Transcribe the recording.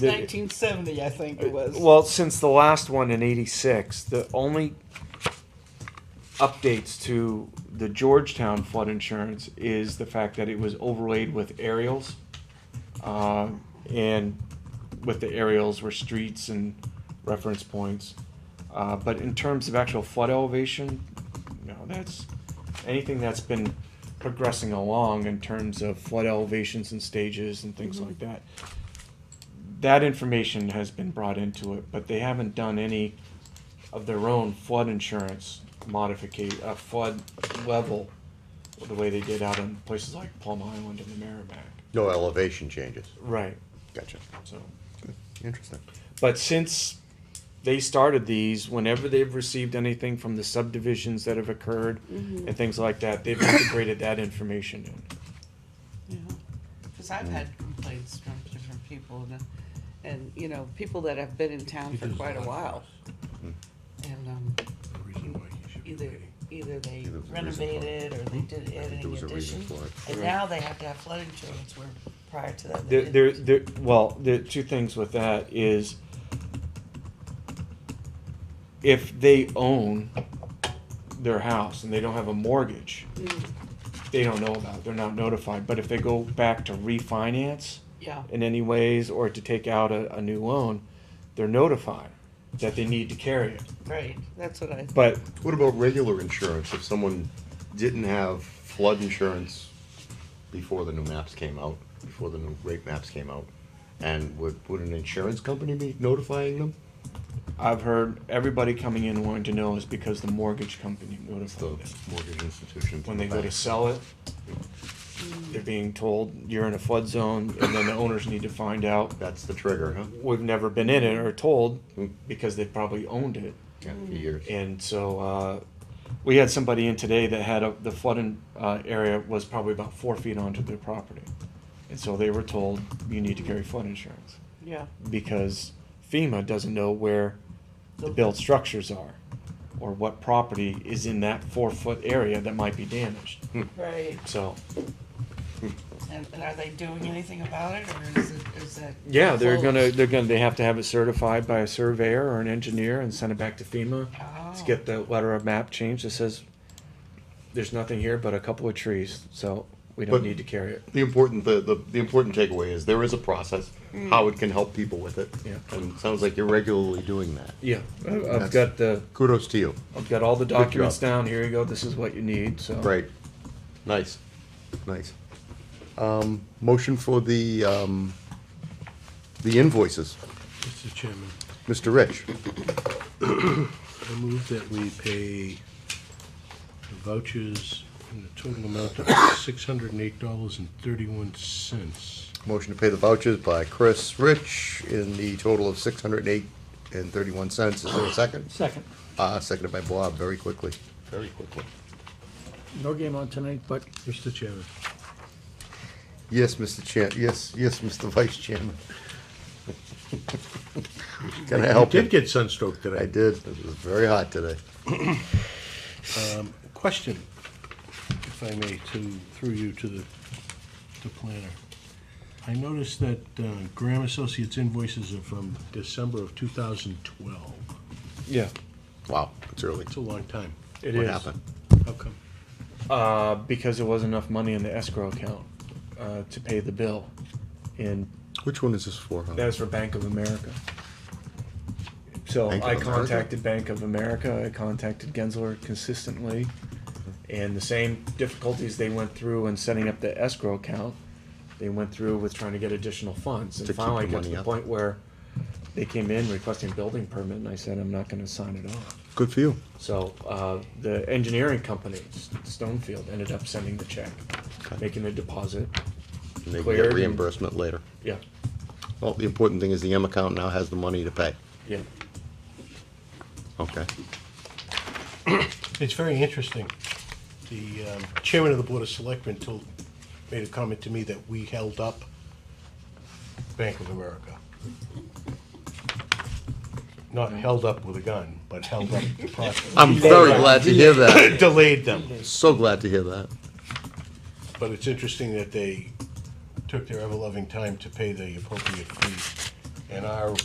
1970, I think it was. Uh, Well, since the last one in '86, the only updates to the Georgetown flood insurance is the fact that it was overlaid with aerials, uh, and with the aerials were streets and reference points. Uh, but in terms of actual flood elevation, no, that's anything that's been progressing along in terms of flood elevations and stages and Mm-hmm. things like that that information has been brought into it, but they haven't done any of their own flood insurance modificate, uh, flood level, the way they did out in places like Plum Island and the Merrimack. No elevation changes. Right. Gotcha. So, Interesting. but since they started these, whenever they've received anything from the subdivisions that have occurred and things like that, they've integrated that information in. Because I've had complaints from different people, and, and you know, people that have been in town for quite a while. Hmm. And um, either either they Either it was a reason for it. renovated or they did I add think any there was a reason addition, for it. and Right. now they have to have flood insurance. Where prior to that, There, they there, didn't. there, well, the two things with that is if they own their house and they don't have a mortgage, they don't know about, it, they're not notified. But if they go back to refinance yeah. in any ways or to take out a, a new loan, they're notified that they need to carry it. Right. That's what I. But What about regular insurance? If someone didn't have flood insurance before the new maps came out, before the new rate maps came out, and would, would an insurance company be notifying them? I've heard everybody coming in wanting to know is because the mortgage company It's the notified them. mortgage institution. when they go to sell it, they're being told you're in a flood zone, and then the owners need to find out. That's the trigger, huh? Hmm. We've never been in it or told because they probably owned it. Yeah, for years. And so uh, we had somebody in today that had a, the flooding uh, area was probably about four feet onto their property. And so they were told you need to carry flood insurance Yeah. because FEMA doesn't know where the built structures are or what property is in that four foot area that might be damaged. Right. So And, and are they doing anything about it, or is it is that? Yeah, they're closed? gonna, they're gonna, they have to have it certified by a surveyor or an engineer and send it back to FEMA. Oh. To get the letter of map changed that says, there's nothing here but a couple of trees, so we don't But- need to carry it. The important, the, the, the important takeaway is there is a process, how it can help people with it. Yeah. And it sounds like you're regularly doing that. Yeah, I- I've That's- got the, Kudos to you. I've got all the documents job. down, here you go, this is what you need, so. Right. Nice, nice. Um, motion for the, um, the invoices. Mr. Chairman, Mr. Rich, I move that we pay the vouchers in a total amount of six hundred and eight dollars and thirty-one cents. motion to pay the vouchers by Chris Rich in the total of six hundred and eight and thirty-one cents. Is there a second? Second. Uh, seconded by Bob, very quickly. Very quickly. No game on tonight, but Mr. Chairman, Yes, Mr. Chair, yes, yes, Mr. Vice Chairman. Can I you help did you? get sunstroke today. I did, it was very hot today. Um, Question, if I may, to, through you to the, to planner. I noticed that uh, Graham Associates invoices are from December of two thousand twelve. Yeah, Wow, it's early. It's a long time. it What is, happened? How come? uh, because there wasn't enough money in the escrow account, uh, to pay the bill. And Which one is this for? huh? That was for Bank of America. So Bank of I America? contacted Bank of America, I contacted Gensler consistently, and the same difficulties they went through in setting up the escrow account, they went through with trying to get additional funds. To And keep finally the got to money the up. point where they came in requesting building permit, and I said, I'm not gonna sign it off. Good for you. So, uh, the engineering company, S- Stonefield, ended up sending the check, making the deposit, And they can Cleared get and- reimbursement later. yeah, Well, the important thing is the M account now has the money to pay. yeah. Okay. It's very interesting. The um, chairman of the Board of Selectmen told, made a comment to me that we held up Bank of America. Not held up with a gun, but held up the process. I'm very glad to hear that. Delayed them. So glad to hear that. But it's interesting that they took their ever-loving time to pay the appropriate fee and our